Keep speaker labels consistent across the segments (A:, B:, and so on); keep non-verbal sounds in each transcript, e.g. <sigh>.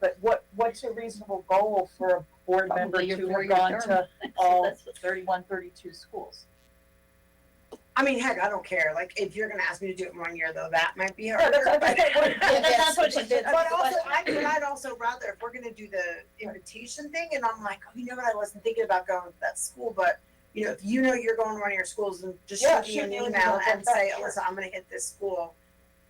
A: But what, what's a reasonable goal for a board member
B: Probably your
A: to have
B: four-year
A: gone
B: term.
A: to all
B: <laughs> That's what-
A: 31, 32 schools?
C: I mean, heck, I don't care. Like, if you're gonna ask me to do it in one year, though, that might be
A: Yeah,
C: hard.
A: that's, I
D: <laughs>
A: think that would-
B: But that's what she did.
C: But also, I, but I'd also rather, if we're gonna do the invitation thing, and I'm like, oh, you know what, I wasn't thinking about going to that school, but, you know, if you know you're going to one of your schools, then just
A: Yeah,
C: shoot me an
A: shoot me an
C: email
A: email,
C: and
A: that's
C: say,
A: sure.
C: Alyssa, I'm gonna hit this school.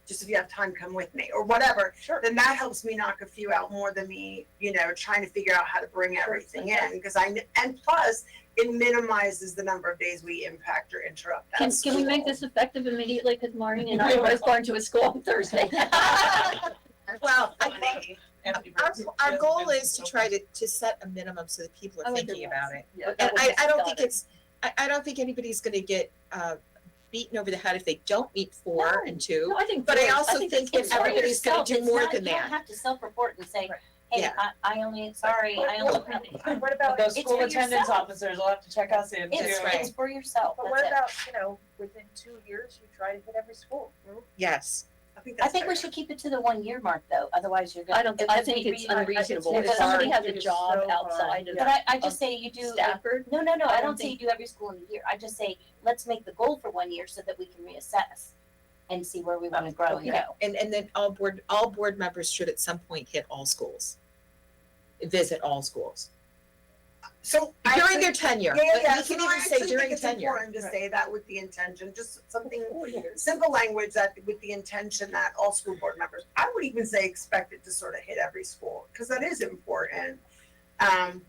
C: Just if you have time, come with me, or whatever,
A: Sure.
C: then that helps me knock a few out more than me, you know, trying to figure out how to bring everything in, because I, kn- and plus, it minimizes the number of days we impact or interrupt that
B: Can, can we make
C: school.
B: this effective immediately, cause Maureen and I was going to a school on
E: <laughs>
B: Thursday.
C: Well, I think,
F: Our, our goal is to try to, to set a minimum so that people
B: I
E: Oh,
F: are
B: would
F: thinking
B: do
F: about
B: that.
F: it.
A: Yeah.
F: And
B: That
F: I,
B: would
F: I don't
B: be
F: think
B: good.
F: it's, I, I don't think anybody's gonna get, uh, beaten over the head if they don't meet four and two.
B: No, I think.
F: But I
B: doing-
F: also
B: think
F: think if
B: it's- it's
F: everybody's gonna
B: yourself,
F: do
B: it's
F: more
B: not-
F: than
B: You
F: that.
B: don't have to self-report and say,
F: Right.
B: hey,
F: Yeah.
B: I, I only, sorry, I only.
D: What about,
A: Those
B: It's
A: school
B: for
A: attendance
B: yourself.
A: officers will have to check us in too.
B: It's,
F: right.
B: it's for yourself,
D: but
B: that's
D: what
B: it. Mm-hmm.
D: about, you know, within two years, you try to hit every school?
F: Yes,
C: I think
B: I
C: that's
B: think we
C: fair.
B: should keep it to the one year mark though, otherwise you're gonna.
E: I don't, I think it's unreasonable.
B: If somebody has
D: It
B: a
D: is
B: job
D: so
B: outside
D: hard,
B: of
D: Uh, yeah.
B: But I, I just say you do,
E: Stafford,
B: no, no, no,
E: I
B: I
E: don't
B: don't say you do every school in a year, I just say, let's make the goal for one year so that we can reassess and see where we wanna grow
F: Okay.
B: and go.
F: and, and then all board, all board members should at some point hit all schools. Visit all schools
C: So I
F: during their
C: actually-
F: tenure,
C: Yeah,
F: but
C: yeah,
F: we
C: so
F: can
C: no, I
F: even
C: actually
F: say
C: think
F: during
C: it's
F: tenure.
C: important to say that with the intention, just something simple language that with the intention that all school board members, I would even say expected to sort of hit every school because that is important. Um,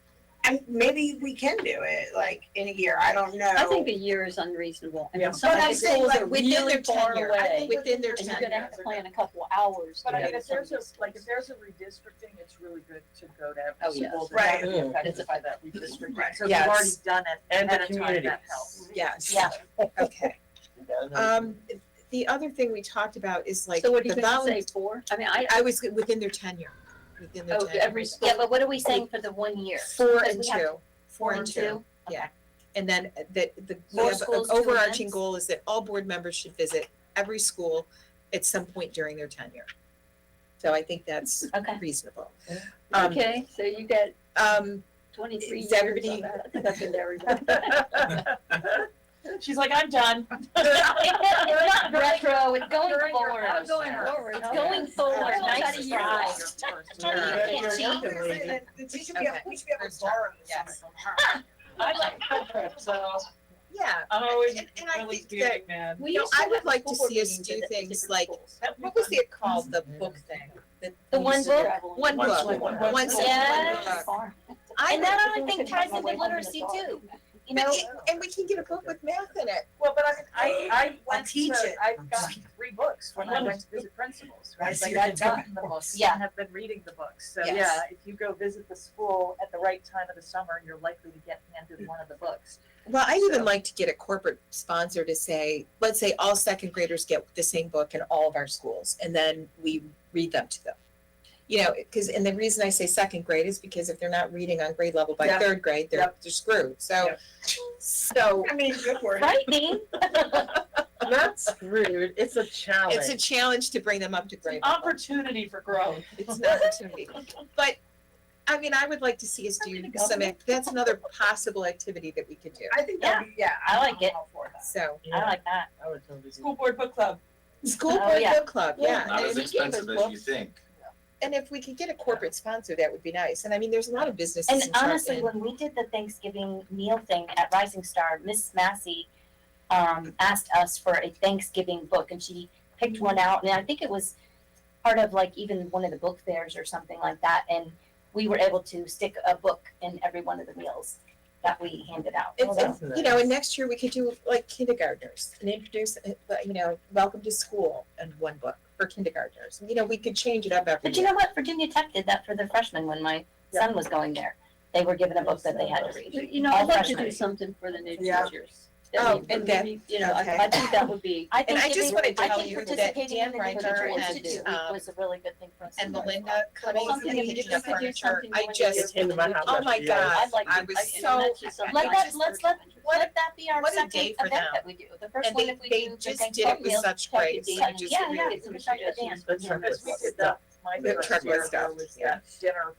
C: and maybe we can do it like in a year. I don't know.
E: I think a year is unreasonable,
A: Yeah.
E: and some
F: But
E: of
F: I'm
E: the
F: saying,
E: schools
F: like,
E: are
F: within their
E: really far
F: tenure. I
E: away.
F: think within their
B: And
F: tenure.
B: you're gonna have to plan a couple hours.
D: But I
B: to
D: mean,
B: get
D: if there's a,
B: some-
D: like, if there's a redistricting, it's really good to go to
E: Oh,
D: every school
E: yes.
C: Right.
D: that would be affected by that redistricting.
C: Right.
D: So if you've already
F: Yes.
D: done it
G: And the
D: ahead of time,
G: community.
D: that helps.
F: Yes.
G: <laughs>
B: Yeah.
F: Okay.
G: Yeah, no,
F: Um, the other thing we talked about is like
E: So what do
F: the
E: you think,
F: volunteer,
E: say four? I mean, I,
F: I was within their tenure, within their
E: oh,
F: tenure.
E: every school,
B: Yeah, but what are we saying for the one year?
F: Four
B: Because
F: and
B: we have
F: two, four and two.
B: Okay.
F: yeah. And then uh, the, the, we
B: Four
F: have an
B: schools, two
F: overarching
B: events.
F: goal is that all board members should visit every school at some point during their tenure. So I think that's
B: Okay.
F: reasonable. Um,
E: okay, so you got
F: Um,
E: twenty-three
F: Is
E: years
F: everybody-
E: of that. I think I've been to
F: <laughs>
E: everybody.
D: <laughs>
A: She's like, I'm done.
B: <laughs> It's <laughs> not- it's not retro, it's going
D: During your-
B: forward.
D: I'm going
B: forward. It's
D: Okay.
B: going forward,
D: Everyone's
B: nice
D: had a year
B: try.
D: off your first
B: Yeah.
D: year.
G: you're-
B: can't
G: you're
B: cheat.
G: working, lady.
C: She should be, able- we should be able to borrow some
F: Yes.
C: from her.
A: <laughs> I like field trips, so
F: yeah,
A: I'm always
F: And- and I
A: really
F: think that-
A: big man.
E: We
F: No,
E: used to
F: I
E: have
F: would like
E: school
F: to
E: board
F: see us
E: meetings
F: do
E: at the
F: things
E: different
F: like-
E: schools.
F: what was it called, the book thing? that
B: The
F: we
B: one
F: used to do?
B: book?
F: One
G: One
F: book,
G: school,
F: one
G: one
F: school, one
G: book.
B: Yes.
F: book. I
B: And that
E: I
B: other thing
E: think
B: ties
E: my
B: into
E: way home
B: literacy
E: is
B: too,
F: <laughs>
B: you
F: But
B: know?
F: it- And we can get a book with math in it.
D: Well, but I mean, I, I went
C: teach
D: to,
C: it.
D: I've gotten three books when I went to visit principals, right?
C: Yes,
D: Like
C: you're
D: I've
C: doing
D: gotten the books
B: Yeah.
D: and have been reading the books. So
F: Yes.
D: yeah, if you go visit the school at the right time of the summer, you're likely to get handed one of the books.
F: Well, I even
D: So-
F: like to get a corporate sponsor to say, let's say all second graders get the same book in all of our schools, and then we read them to them. You know, because, and the reason I say second grade is because if they're not reading on grade level by
D: Yeah.
F: third grade, they're,
D: Yep.
F: they're screwed, so.
D: Yep.
F: So,
C: <laughs> I mean, good work.
B: Frightening.
F: that's,
G: rude. It's a challenge.
F: it's a challenge to bring them up to grade level.
A: Opportunity for growth.
F: It's an opportunity. But, I mean, I would like to see us do some, ac- that's another possible activity that we could do,
C: I think that'd be, yeah,
B: I
C: I'm
B: like it.
C: all for that.
F: so.
B: I like that.
G: I would totally do
A: School board book club.
F: School
B: Oh,
F: board
B: yeah.
F: book club, yeah.
B: Yeah.
F: and
H: Not as
F: if you give us
H: expensive as
F: books-
H: you think.
F: And if we could get a corporate sponsor, that would be nice. And I mean, there's a lot of businesses
B: And
F: in Charlotte.
B: honestly, when we did the Thanksgiving meal thing at Rising Star, Miss Massey um, asked us for a Thanksgiving book, and she picked one out, and I think it was part of like even one of the book fairs or something like that, and we were able to stick a book in every one of the meals that we handed out.
F: And-
B: So-
F: and, you know, and next year we could do like kindergartners and introduce, uh, you know, welcome to school and one book for kindergartners. You know, we could change it up every
B: But you
F: year.
B: know what? Virginia Tech did that for their freshmen when my son was going there. They were given a book that they had to read.
E: You know, I'd like to do
B: Freshman.
E: something for the new
C: Yeah.
E: teachers. That
F: Oh,
E: would
F: and
E: be-
F: that-
E: You know, I,
F: okay.
E: I think that would
B: <laughs>
E: be,
B: I think
F: I just
B: giving-
F: wanna tell
B: I think
F: you that
B: participating in
F: Dan
B: the
F: Reichert
B: individual
F: and,
B: institute
F: um,
B: was a really good thing for us.
F: And
B: to do.
F: Melinda Cummings,
E: Something
F: the
E: you
F: Legion
E: just
F: of
E: could do
F: Furniture,
E: something
F: I
E: when you
F: just,
G: Came to my house
F: oh
G: after
F: my
G: years.
F: gosh,
B: I'd like
F: I
B: to-
F: was
B: I-
F: so.
E: that's just something.
B: Let
F: I
B: that,
F: just-
B: let's let, let that be our
F: what a
B: second
F: day for
B: event
F: them.
B: that we do. The first
F: And
B: one
F: they,
B: that we
F: they
B: do, the
F: just did it
B: Thanksgiving
F: with
B: meal.
F: such
B: check
F: grace.
B: it
F: I
B: in.
F: just
B: Yeah, yeah,
F: really
B: it's a good idea.
F: appreciate it.
D: Because we
G: Yes.
D: did the my
F: The
D: first
F: truck was
D: year, there
F: stopped,
D: was
F: yeah.
D: that dinner